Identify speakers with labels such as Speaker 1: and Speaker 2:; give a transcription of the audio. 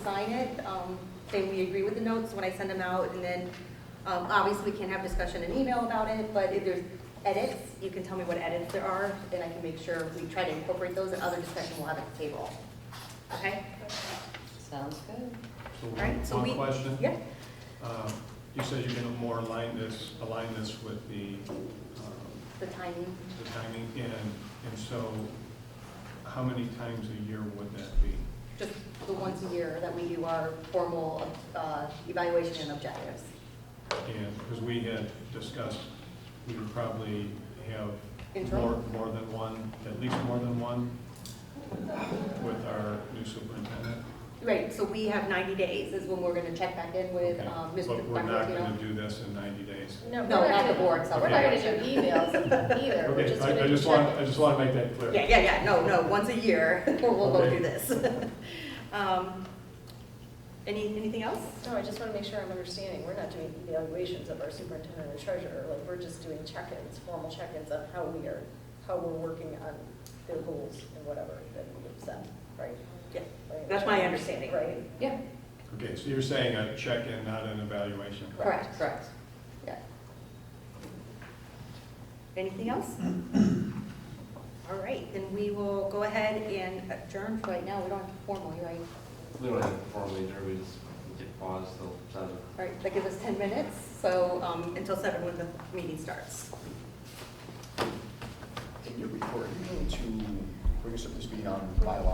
Speaker 1: sign it, um, say we agree with the notes when I send them out, and then, um, obviously, we can have discussion in email about it, but if there's edits, you can tell me what edits there are, and I can make sure we try to incorporate those, and other discussion we'll have at the table. Okay?
Speaker 2: Sounds good.
Speaker 3: So
Speaker 1: Right, so we-
Speaker 3: One question.
Speaker 1: Yeah?
Speaker 3: Um, You said you're gonna more align this, align this with the, um,
Speaker 1: The timing,
Speaker 3: the timing, and, and so how many times a year would that be?
Speaker 1: just the once a year that we do our formal, uh, evaluation and objectives.
Speaker 3: And, because we had discussed, we would probably have
Speaker 1: Interim?
Speaker 3: more, more than one, at least more than one with our new superintendent.
Speaker 1: Right, so we have ninety days is when we're gonna check back in with,
Speaker 3: Okay.
Speaker 1: um, Mr.
Speaker 3: But we're not
Speaker 1: Dr.
Speaker 3: gonna
Speaker 1: Aquino.
Speaker 3: do this in ninety days.
Speaker 1: No, not the board, so.
Speaker 3: we're
Speaker 2: We're
Speaker 3: not
Speaker 2: not gonna do emails either, we're
Speaker 3: Okay,
Speaker 2: just
Speaker 3: I, I
Speaker 2: gonna
Speaker 3: just want,
Speaker 2: check
Speaker 3: I
Speaker 2: it.
Speaker 3: just want to make that clear.
Speaker 1: Yeah, yeah, yeah, no, no, once a year, we'll we'll go
Speaker 3: Okay.
Speaker 1: through this. Um, Any, anything else?
Speaker 4: No, I just want to make sure I'm understanding, we're not doing evaluations of our superintendent and treasurer, like, we're just doing check-ins, formal check-ins of how we are, how we're working on their goals and whatever that we've set, right?
Speaker 1: Yeah,
Speaker 4: Right?
Speaker 1: that's my understanding.
Speaker 4: Right,
Speaker 2: Yeah,
Speaker 3: Okay, so you're saying a check-in, not an evaluation?
Speaker 1: Correct, correct, yeah. Anything else? All right, then we will go ahead and adjourn for right now, we don't have to formally, right?
Speaker 5: We don't have to formally adjourn, we just get paused till seven.
Speaker 1: All right, that gives us ten minutes, so, um, until seven when the meeting starts.
Speaker 6: in your report, you need to bring us up to speed on bylaw